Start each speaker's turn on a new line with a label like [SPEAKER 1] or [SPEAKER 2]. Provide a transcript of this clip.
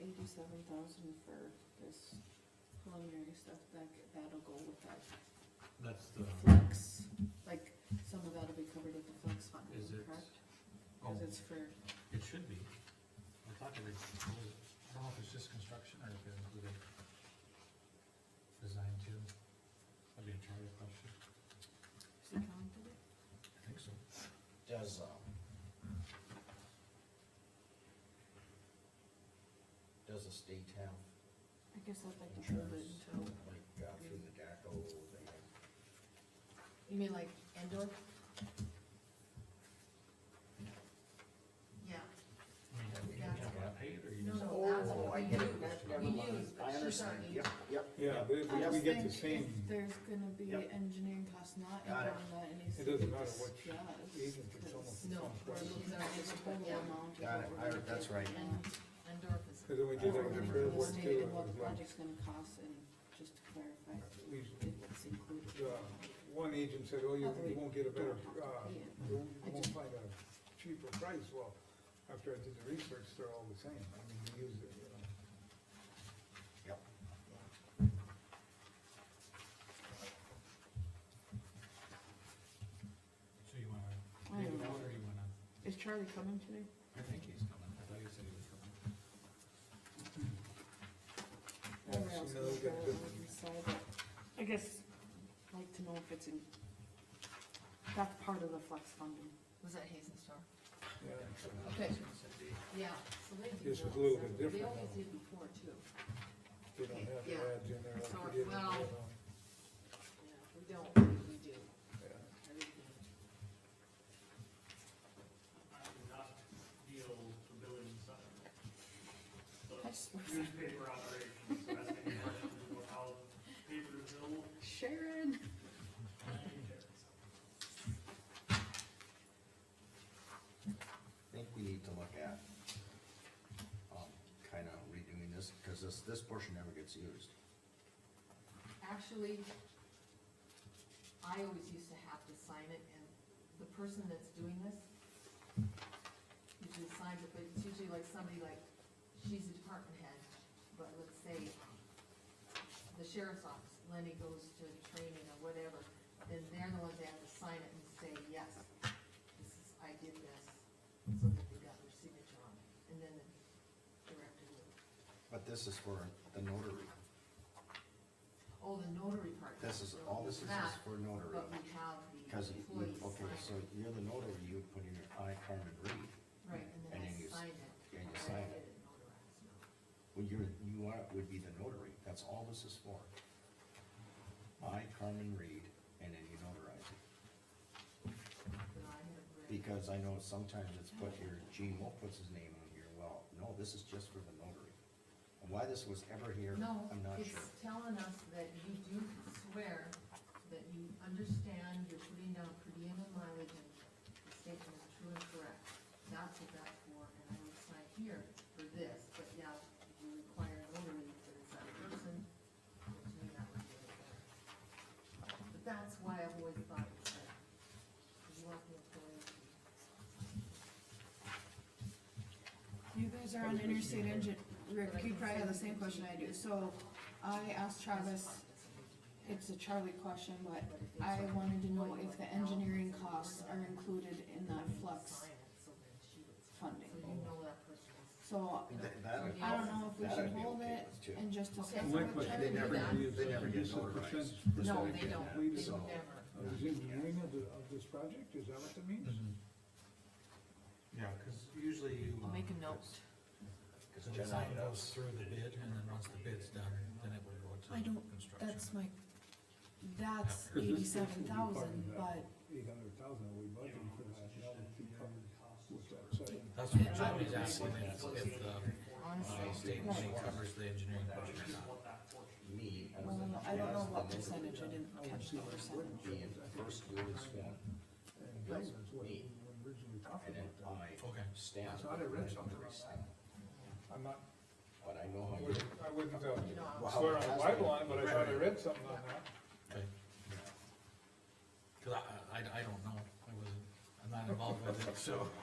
[SPEAKER 1] eighty-seven thousand for this preliminary stuff, that, that'll go with that
[SPEAKER 2] That's the,
[SPEAKER 3] Uh-huh.
[SPEAKER 1] flex, like, some of that'll be covered with the flex fund,
[SPEAKER 2] is it?
[SPEAKER 1] correct?
[SPEAKER 2] Oh,
[SPEAKER 1] Cause it's for,
[SPEAKER 2] it should be. I thought it was, I don't know if it's just construction or if it included design too. That'd be a charter question.
[SPEAKER 1] is it counted?
[SPEAKER 2] I think so.
[SPEAKER 3] Does, um. Does the state have,
[SPEAKER 1] I guess I'd like to hold it until,
[SPEAKER 3] Insurance. like, uh, through the DACO, they have,
[SPEAKER 1] you mean like Endor? Yeah,
[SPEAKER 2] I mean, you
[SPEAKER 1] Yeah.
[SPEAKER 2] don't wanna pay it or you
[SPEAKER 1] No,
[SPEAKER 2] just?
[SPEAKER 1] no. that's what
[SPEAKER 3] Oh, I
[SPEAKER 1] we
[SPEAKER 3] get it.
[SPEAKER 1] use,
[SPEAKER 3] That's
[SPEAKER 2] we
[SPEAKER 3] never mind.
[SPEAKER 1] use, but
[SPEAKER 3] I
[SPEAKER 1] she's
[SPEAKER 3] understand,
[SPEAKER 1] already-
[SPEAKER 3] yep, yep,
[SPEAKER 4] Yeah, but
[SPEAKER 1] I
[SPEAKER 4] if we
[SPEAKER 1] just
[SPEAKER 4] get
[SPEAKER 1] think
[SPEAKER 4] the same,
[SPEAKER 1] if there's gonna be
[SPEAKER 3] Yep.
[SPEAKER 1] engineering costs not in
[SPEAKER 3] Got it.
[SPEAKER 1] that, it needs to
[SPEAKER 4] it
[SPEAKER 1] be.
[SPEAKER 4] doesn't matter what
[SPEAKER 1] Yeah.
[SPEAKER 4] agent, it's almost the same
[SPEAKER 5] No, we're
[SPEAKER 4] price.
[SPEAKER 5] looking at
[SPEAKER 1] It's
[SPEAKER 5] it,
[SPEAKER 1] a total
[SPEAKER 5] yeah,
[SPEAKER 1] amount. of
[SPEAKER 3] Got
[SPEAKER 1] what
[SPEAKER 3] it.
[SPEAKER 1] we're
[SPEAKER 3] I-
[SPEAKER 1] gonna
[SPEAKER 3] that's
[SPEAKER 1] do.
[SPEAKER 3] right.
[SPEAKER 1] And
[SPEAKER 5] Endorf is,
[SPEAKER 4] Cause when we did
[SPEAKER 3] I
[SPEAKER 4] it
[SPEAKER 1] and the
[SPEAKER 3] remember.
[SPEAKER 4] with the Fair Board
[SPEAKER 1] state
[SPEAKER 4] too,
[SPEAKER 1] of
[SPEAKER 4] it
[SPEAKER 1] what the
[SPEAKER 4] was like,
[SPEAKER 1] project's gonna cost, and just to clarify,
[SPEAKER 4] we,
[SPEAKER 1] it was included.
[SPEAKER 4] the, one agent said, oh, you, you won't get a better, uh, you you won't find a cheaper price, well, after I did the research, they're all the same, I mean, you use it, you know.
[SPEAKER 3] yep.
[SPEAKER 2] So you wanna,
[SPEAKER 1] I
[SPEAKER 2] leave
[SPEAKER 1] don't
[SPEAKER 2] it
[SPEAKER 1] know.
[SPEAKER 2] out or you wanna,
[SPEAKER 1] Is Charlie coming today?
[SPEAKER 2] I think he's coming, I thought you said he was coming.
[SPEAKER 4] Yeah,
[SPEAKER 1] Or else
[SPEAKER 4] so now
[SPEAKER 1] we'll
[SPEAKER 4] we got
[SPEAKER 1] go
[SPEAKER 4] the-
[SPEAKER 1] on the side, but I guess, I'd like to know if it's in, that's part of the flex funding.
[SPEAKER 5] was that Hazen Star?
[SPEAKER 4] yeah, so
[SPEAKER 5] Okay, yeah, so they do.
[SPEAKER 4] This is a
[SPEAKER 5] those.
[SPEAKER 4] little bit
[SPEAKER 5] They
[SPEAKER 4] different
[SPEAKER 5] always
[SPEAKER 4] now.
[SPEAKER 5] did before too.
[SPEAKER 4] They don't have the
[SPEAKER 5] Yeah.
[SPEAKER 4] ads in there like
[SPEAKER 5] So,
[SPEAKER 4] we did, you know,
[SPEAKER 5] well- Yeah, we don't, we do,
[SPEAKER 4] yeah.
[SPEAKER 5] everything.
[SPEAKER 6] not deal the building side. So
[SPEAKER 1] I just-
[SPEAKER 6] newspaper operations, so that's the question, of how paper is built.
[SPEAKER 1] Sharon,
[SPEAKER 3] I think we need to look at, um, kinda redoing this, cause this, this portion never gets used.
[SPEAKER 5] Actually, I always used to have to sign it, and the person that's doing this usually signs it, but it's usually like somebody like, she's a department head, but let's say the sheriff's office, Lenny goes to training or whatever, then they're the ones that have to sign it and say, yes, this is, I did this, so that they got their signature on it, and then the director would.
[SPEAKER 3] But this is for the notary,
[SPEAKER 5] Oh, the notary part.
[SPEAKER 3] this is,
[SPEAKER 5] So
[SPEAKER 3] all this is
[SPEAKER 5] that-
[SPEAKER 3] is for notary.
[SPEAKER 5] But we have the
[SPEAKER 3] Cause you,
[SPEAKER 5] employees sign
[SPEAKER 3] okay, so
[SPEAKER 5] it,
[SPEAKER 3] you're the notary, you put in your I, Carmen Reed,
[SPEAKER 5] right, and
[SPEAKER 3] and
[SPEAKER 5] then I
[SPEAKER 3] then you s-
[SPEAKER 5] sign it.
[SPEAKER 3] and you
[SPEAKER 5] I
[SPEAKER 3] sign
[SPEAKER 5] get
[SPEAKER 3] it.
[SPEAKER 5] notarized now.
[SPEAKER 3] Well, you're, you are, would be the notary, that's all this is for. I, Carmen Reed, and then you notarize it,
[SPEAKER 5] But I have read-
[SPEAKER 3] because I know sometimes it's put here, Gene Wolf puts his name on here, well, no, this is just for the notary. And why this was ever here,
[SPEAKER 5] No,
[SPEAKER 3] I'm not
[SPEAKER 5] it's
[SPEAKER 3] sure.
[SPEAKER 5] telling us that you do swear that you understand you're putting down per diem and mileage and the statement is true and correct. That's what that's for, and I would sign here for this, but yeah, you require notary for this other person, which may not be really fair. But that's why I've always thought it was that, you want the employee to.
[SPEAKER 1] you guys are on interstate engine, Rick, you probably have the same question I do, so I asked Travis, it's a Charlie question, but I wanted to know if the engineering costs are included in that flux
[SPEAKER 5] Sign it, so then she would-
[SPEAKER 1] funding.
[SPEAKER 5] So you know that person is.
[SPEAKER 1] So
[SPEAKER 3] That- that-
[SPEAKER 1] I don't know if we
[SPEAKER 3] that
[SPEAKER 1] should
[SPEAKER 3] I'd be
[SPEAKER 1] hold
[SPEAKER 3] okay
[SPEAKER 1] it
[SPEAKER 3] with too.
[SPEAKER 1] and just discuss
[SPEAKER 5] Okay.
[SPEAKER 1] it
[SPEAKER 4] My
[SPEAKER 1] with
[SPEAKER 4] question,
[SPEAKER 5] They
[SPEAKER 1] Charlie.
[SPEAKER 4] they never
[SPEAKER 5] never-
[SPEAKER 4] use,
[SPEAKER 3] they never get
[SPEAKER 4] use the
[SPEAKER 3] notarized.
[SPEAKER 4] percentage.
[SPEAKER 3] This
[SPEAKER 5] No,
[SPEAKER 3] one
[SPEAKER 5] they
[SPEAKER 3] did
[SPEAKER 5] don't.
[SPEAKER 3] that,
[SPEAKER 4] Completed
[SPEAKER 3] so-
[SPEAKER 5] Never.
[SPEAKER 4] Of this engineering of the, of this project, is that what that means?
[SPEAKER 2] Yeah, cause usually you.
[SPEAKER 5] I'll make a
[SPEAKER 2] um,
[SPEAKER 5] note.
[SPEAKER 3] Cause
[SPEAKER 2] So the
[SPEAKER 3] generally
[SPEAKER 2] design
[SPEAKER 3] that's-
[SPEAKER 2] goes through the bid, and then once the bid's done, then it will go to
[SPEAKER 1] I don't-
[SPEAKER 2] construction.
[SPEAKER 1] That's my, that's
[SPEAKER 4] Because this- this would
[SPEAKER 1] eighty-seven
[SPEAKER 4] be part of
[SPEAKER 1] thousand,
[SPEAKER 4] that
[SPEAKER 1] but
[SPEAKER 4] Eight hundred thousand, we budgeted for that, that would be covered with that second.
[SPEAKER 2] That's what Johnny's asking, if if the uh,
[SPEAKER 5] Honestly,
[SPEAKER 2] state money covers the engineering budget or not.
[SPEAKER 3] Me, I was in.
[SPEAKER 1] well, I don't know what
[SPEAKER 3] the notary,
[SPEAKER 1] percentage, I didn't
[SPEAKER 4] I would
[SPEAKER 1] catch
[SPEAKER 4] see
[SPEAKER 1] the
[SPEAKER 4] what it
[SPEAKER 1] percentage.
[SPEAKER 4] would be.
[SPEAKER 3] Being first newly sworn,
[SPEAKER 4] And that was what we originally talked
[SPEAKER 3] and then
[SPEAKER 4] about.
[SPEAKER 3] I
[SPEAKER 2] Okay.
[SPEAKER 3] stand.
[SPEAKER 4] I thought I read something
[SPEAKER 3] Every
[SPEAKER 4] like
[SPEAKER 3] sign.
[SPEAKER 4] I'm not,
[SPEAKER 3] But I know
[SPEAKER 4] I
[SPEAKER 3] how you.
[SPEAKER 4] wouldn't, I wouldn't,
[SPEAKER 5] you
[SPEAKER 4] uh,
[SPEAKER 5] know,
[SPEAKER 3] Well, how
[SPEAKER 4] swear
[SPEAKER 3] it
[SPEAKER 4] on the
[SPEAKER 3] has been.
[SPEAKER 4] Bible on, but I thought I read something on that.
[SPEAKER 2] Okay,
[SPEAKER 3] Yeah.
[SPEAKER 2] cause I, I, I don't know, I wasn't, I'm not involved with it, so.